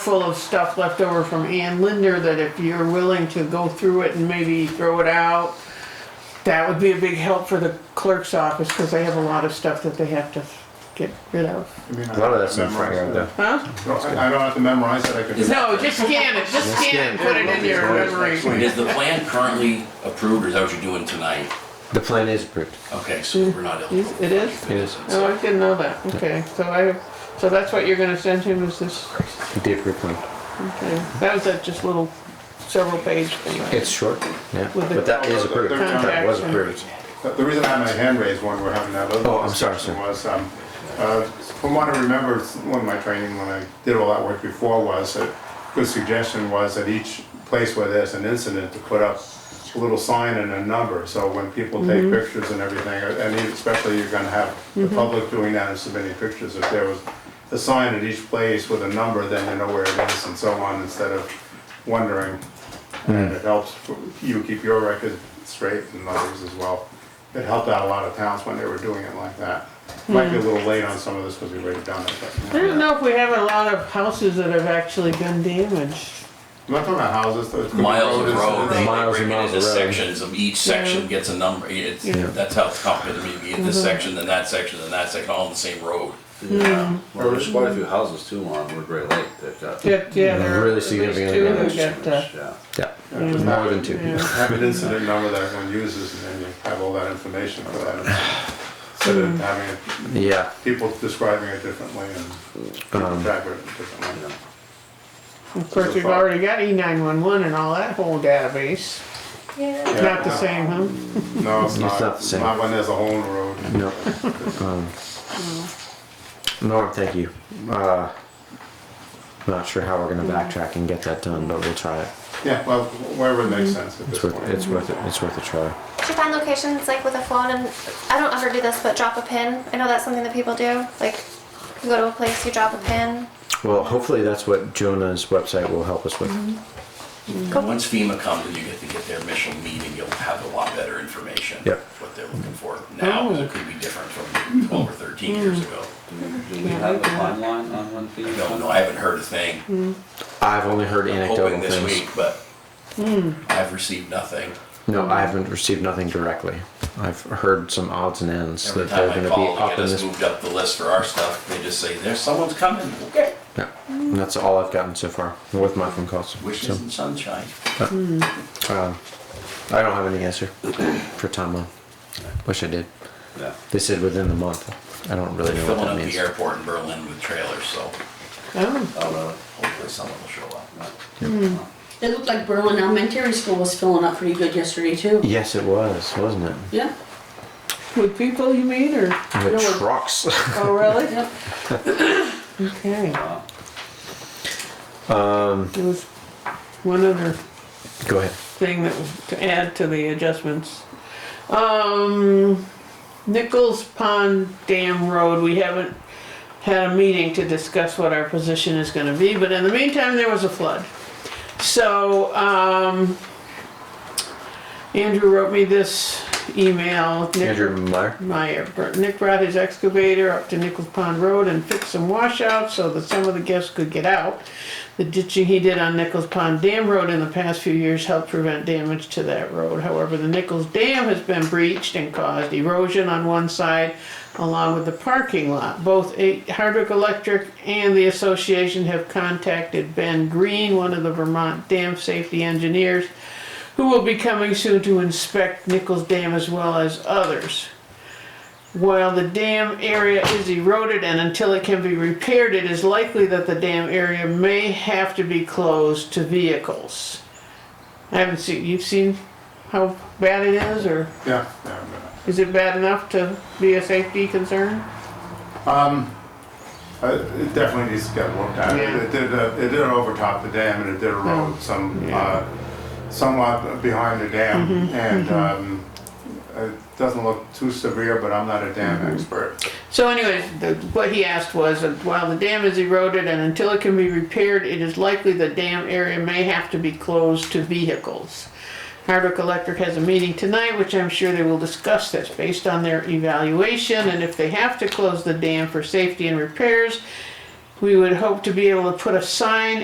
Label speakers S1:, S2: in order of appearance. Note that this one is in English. S1: full of stuff left over from Ann Linder that if you're willing to go through it and maybe throw it out, that would be a big help for the clerk's office because they have a lot of stuff that they have to get rid of.
S2: I mean, I
S3: A lot of
S2: don't
S3: that's not
S2: memorize
S3: Frankland.
S2: it.
S1: Huh?
S2: No, I I don't have to memorize it, I could. just-
S1: No, just scan it, just scan it, and put it in your memory.
S4: Is the plan currently approved, or is that what you're doing tonight?
S3: The plan is approved.
S4: Okay, so we're not eligible.
S1: It is?
S3: It is.
S1: Oh, I didn't know that. Okay, so I, so that's what you're gonna send him is this,
S3: The approved plan.
S1: okay. That was that just little several page thing.
S3: It's short, yeah,
S1: With the-
S3: but that is approved. That was approved.
S2: The the reason I had my hand raised when we we're having that
S3: Oh,
S2: other
S3: I'm sorry,
S2: discussion
S3: sir.
S2: was, um, uh, from what I remember, one of my training when I did all that work before was, a good suggestion was that each place where there's an incident to put up a little sign and a number, so when people take pictures and everything, uh, and especially you're gonna have the public doing that and submitting pictures, if there was a sign at each place with a number, then you know where it is and so on, instead of wondering and it helps for- you keep your record straight and others as well. It helped out a lot of towns when they were doing it like that. Might be a little late on some of this because we've already done it,
S1: I
S2: but.
S1: don't know if we have a lot of houses that have actually been damaged.
S2: I'm not talking about houses, though. it could be
S4: Miles of
S2: roads,
S4: road, they they
S3: Miles
S4: break
S3: and
S4: it
S3: miles
S4: into
S3: of road.
S4: sections, of each section gets a number, it's,
S1: Yeah.
S4: that's how it's complicated, I mean, you get this section, then that section, then that section, all on the same road.
S5: Yeah, well, there's quite a few houses too on Woodbury Lake that got.
S1: Yeah, yeah, there are
S3: Really
S1: at least two
S3: significantly
S1: who
S3: damaged.
S1: got, uh,
S5: Yeah.
S3: Yeah,
S2: Yeah, just
S3: more
S2: have-
S3: than two.
S1: yeah.
S2: Have an incident number that everyone uses and then you have all that information for that. Instead of having it-
S3: Yeah,
S2: people describing it differently and
S3: Um.
S2: keeping track of it differently.
S1: Of course, we've already got E nine one one and all that whole database.
S6: Yeah,
S2: Yeah.
S1: Not the same, huh?
S2: No, it's not,
S3: not the same.
S2: not when there's a hole in the road.
S3: no. Um, Norm, thank you. Uh, I'm not sure how we're gonna backtrack and get that done, but we'll try it.
S2: Yeah, well, wherever it makes sense at this
S3: It's
S2: point.
S3: worth, it's worth it, it's worth a try.
S6: to find locations like with a phone, and I don't ever do this, but drop a pin. I know that's something that people do. Like, you go to a place, you drop a pin.
S3: Well, hopefully that's what Jonah's website will help us with.
S4: And once FEMA comes and you get to get their initial meeting, you'll have a lot better information.
S3: Yep.
S4: What they're looking for now, 'cause it could be different from twelve or thirteen years ago.
S5: Do we- do we have a timeline on when
S4: I
S5: things?
S4: don't know, I haven't heard a thing,
S3: I've only heard
S4: I'm hoping
S3: Mm. anecdotal
S4: this week,
S3: things.
S4: but I've received nothing.
S3: No, I haven't received nothing directly. I've heard some odds and ends
S4: Every
S3: that they're
S4: time I
S3: gonna be
S4: call to
S3: up
S4: get
S3: in
S4: us
S3: this.
S4: moved up the list for our stuff, they just say, there's someone's coming, okay.
S3: Yeah, and that's all I've gotten so far with my phone calls. So,
S4: Wishes and sunshine.
S3: um, I don't have any answer for timeline. Wish I did.
S5: Yeah.
S3: They said within the month. I don't really know what
S4: Filling
S3: that
S4: up the
S3: means.
S4: airport in Berlin with trailers, so
S1: Oh,
S5: Oh, really?
S4: hopefully someone will show up.
S7: It looked like Berlin Elementary School was filling up pretty good yesterday too.
S3: Yes, it was, wasn't it?
S7: Yeah.
S1: with people you mean, or,
S3: With
S7: Really?
S3: trucks.
S1: oh, really?
S7: Yep.
S1: Okay,
S5: Wow.
S3: Um,
S1: there was one other
S3: Go ahead.
S1: thing that, to add to the adjustments. Um, Nichols Pond Dam Road, we haven't had a meeting to discuss what our position is gonna be, but in the meantime, there was a flood. So, um, Andrew wrote me this email. Nick-
S3: Andrew Meyer.
S1: Meyer. Nick brought his excavator up to Nichols Pond Road and fixed some washouts so that some of the guests could get out. The ditching he did on Nichols Pond Dam Road in the past few years helped prevent damage to that road. However, the Nichols Dam has been breached and caused erosion on one side along with the parking lot. Both A- Hardwick Electric and the association have contacted Ben Green, one of the Vermont dam safety engineers, who will be coming soon to inspect Nichols Dam as well as others. While the dam area is eroded and until it can be repaired, it is likely that the dam area may have to be closed to vehicles. I haven't seen, you've seen how bad it is, or
S2: Yeah, yeah, I'm gonna-
S1: is it bad enough to be a safety concern?
S2: Um, Uh, It definitely needs to get looked at.
S1: Yeah.
S2: It did, uh, it did overtop the dam and it did erode some,
S1: Yeah.
S2: uh, somewhat behind the dam. And um, it doesn't look too severe, but I'm not a dam expert.
S1: So anyways, the, what he asked was, uh, while the dam is eroded and until it can be repaired, it is likely the dam area may have to be closed to vehicles. Hardwick Electric has a meeting tonight, which I'm sure they will discuss this based on their evaluation, and if they have to close the dam for safety and repairs, we would hope to be able to put a sign